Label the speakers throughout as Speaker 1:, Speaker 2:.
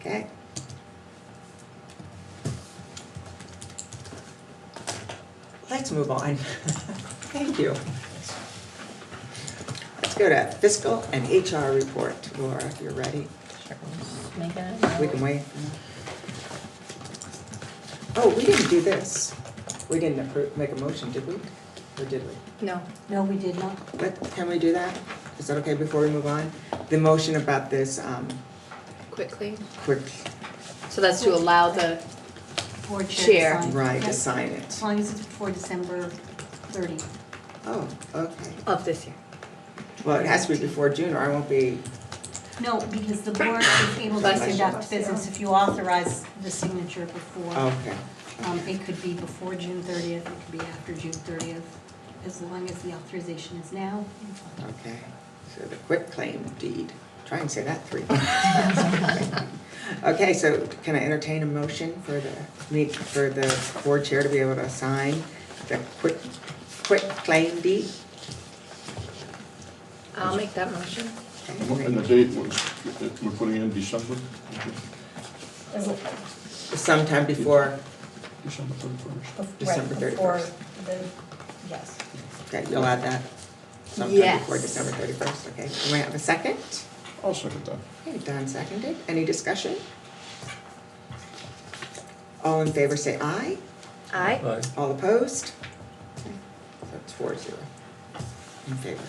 Speaker 1: Okay.
Speaker 2: Let's move on. Thank you.
Speaker 1: Let's go to fiscal and HR report. Laura, if you're ready,
Speaker 3: Make a
Speaker 1: we can wait. Oh, we didn't do this. We didn't approve, make a motion, did we? Or did we?
Speaker 3: No,
Speaker 4: No, we did not.
Speaker 1: What, can we do that? Is that okay before we move on? The motion about this, um,
Speaker 3: quickly.
Speaker 1: quick
Speaker 3: So that's to allow the,
Speaker 4: Board
Speaker 3: Share.
Speaker 4: chair signed.
Speaker 1: ride
Speaker 4: Yep.
Speaker 1: to sign
Speaker 4: As
Speaker 1: it.
Speaker 4: long as it's before December 30.
Speaker 1: Oh, okay.
Speaker 3: of this year.
Speaker 1: Well, it has to be before June or I won't be,
Speaker 4: No, because the board is able to
Speaker 3: Bless you.
Speaker 4: conduct business if you authorize the signature
Speaker 3: Oh.
Speaker 4: before.
Speaker 1: okay.
Speaker 4: Um, It could be before June 30th, it could be after June 30th, as long as the authorization is now.
Speaker 1: Okay, so the quick claim deed, try and say that three. Okay, so can I entertain a motion for the, meet, for the board chair to be able to sign the quick, quick claim deed?
Speaker 3: I'll make that motion.
Speaker 5: And the date was, we're putting in December,
Speaker 1: Sometime before,
Speaker 5: December thirty-first.
Speaker 1: December
Speaker 6: Right,
Speaker 1: 31st.
Speaker 6: before the, yes.
Speaker 1: okay, you'll add that, sometime
Speaker 3: Yes.
Speaker 1: before December thirty-first, okay. Can we have a second?
Speaker 5: I'll second that.
Speaker 1: Okay, Don seconded, any discussion? All in favor say aye.
Speaker 3: Aye.
Speaker 7: Aye.
Speaker 1: All opposed? That's four zero in favor.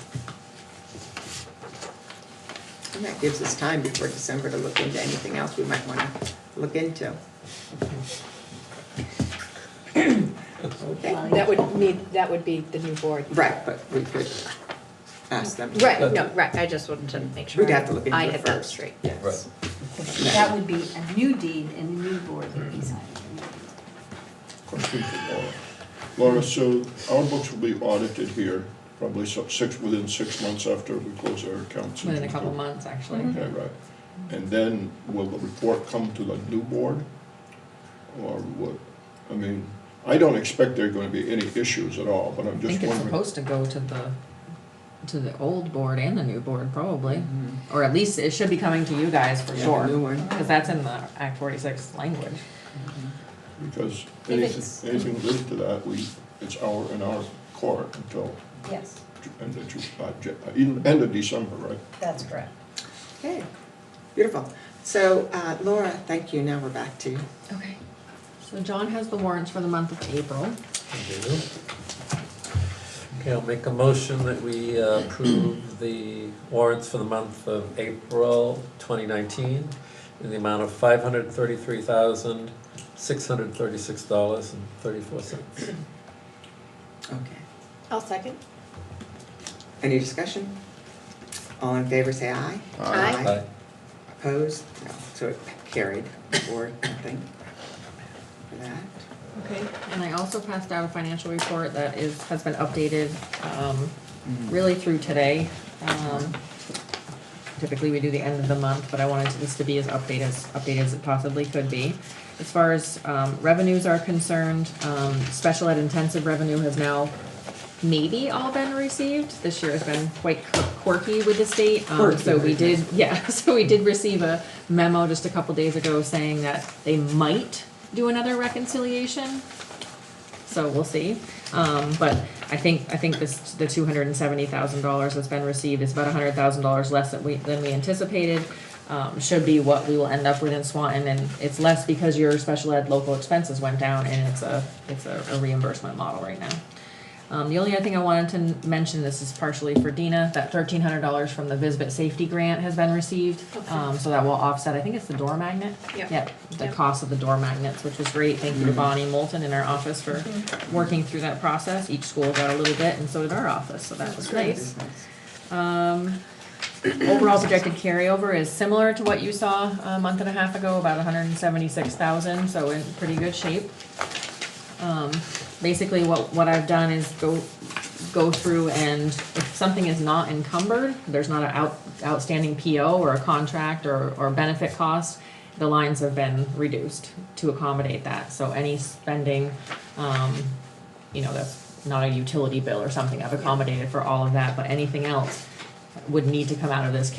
Speaker 1: And that gives us time before December to look into anything else we might wanna look into. Okay,
Speaker 3: That would need, that would be the new board.
Speaker 1: right, but we could ask them.
Speaker 3: Right, no, right, I just wanted to make sure.
Speaker 1: Uh, We'd have to look into
Speaker 3: I
Speaker 1: it
Speaker 3: had that
Speaker 1: first.
Speaker 3: straight.
Speaker 1: Yes.
Speaker 4: That would be a new deed and a new board would be signing.
Speaker 5: Question for Laura. Laura, so our books will be audited here probably so- six, within six months after we close our accounts.
Speaker 8: Within a couple months, actually.
Speaker 5: Okay, right. And then will the report come to the new board? Or what, I mean, I don't expect there are gonna be any issues at all, but I'm
Speaker 8: I
Speaker 5: just
Speaker 8: think it's
Speaker 5: wondering.
Speaker 8: supposed to go to the, to the old board and the new board, probably. Or at least it should be coming to you guys for
Speaker 1: Mm-hmm. Yeah,
Speaker 8: sure.
Speaker 1: new one.
Speaker 8: Because that's in the Act forty-six language.
Speaker 5: Because
Speaker 6: If it's-
Speaker 5: anything, anything related to that, we, it's our, in our court until
Speaker 6: Yes,
Speaker 5: end of Ju- uh, Ju- uh, in- end of December, right?
Speaker 6: that's correct.
Speaker 1: Okay, beautiful. So, uh, Laura, thank you, now we're back to you.
Speaker 8: Okay. So John has the warrants for the month of April.
Speaker 7: do. Okay, I'll make a motion that we uh, approve the warrants for the month of April 2019 in the amount of $533,636.34.
Speaker 1: Okay.
Speaker 3: I'll second.
Speaker 1: Any discussion? All in favor, say aye.
Speaker 3: Aye.
Speaker 7: Aye.
Speaker 1: Opposed? No, so it carried, or nothing for that.
Speaker 8: Okay. And I also passed out a financial report that is, has been updated, um, really through today. Um, Typically, we do the end of the month, but I wanted this to be as updated, as updated as it possibly could be. As far as, um, revenues are concerned, um, special ed intensive revenue has now maybe all been received. This year has been quite quirky with the state, um, so we did, yeah, so we did receive a memo just a couple days ago saying that they might do another reconciliation, so we'll see. Um, but I think, I think this, the two hundred and seventy thousand dollars that's been received is about a hundred thousand dollars less than we, than we anticipated. Um, should be what we will end up with in Swanton, and it's less because your special ed local expenses went down, and it's a, it's a a reimbursement model right now. Um, the only other thing I wanted to n- mention, this is partially for Dina, that thirteen hundred dollars from the Visbit Safety Grant has been received. Um, so that will offset, I think it's the door magnet?
Speaker 3: Yeah.
Speaker 8: Yep, the
Speaker 3: Yeah.
Speaker 8: cost of the door magnets, which was great. Thank you to Bonnie Moulton in our office for working through that process. Each school got a little bit, and so did our office, so that was nice. Um, overall projected carryover is similar to what you saw a month and a half ago, about hundred and seventy-six thousand, so in pretty good shape. Um, basically what, what I've done is go, go through and if something is not encumbered, there's not an out, outstanding PO or a contract or, or benefit cost, the lines have been reduced to accommodate that, so any spending, um, you know, that's not a utility bill or something, I've accommodated for all of that, but anything else would need to come out of this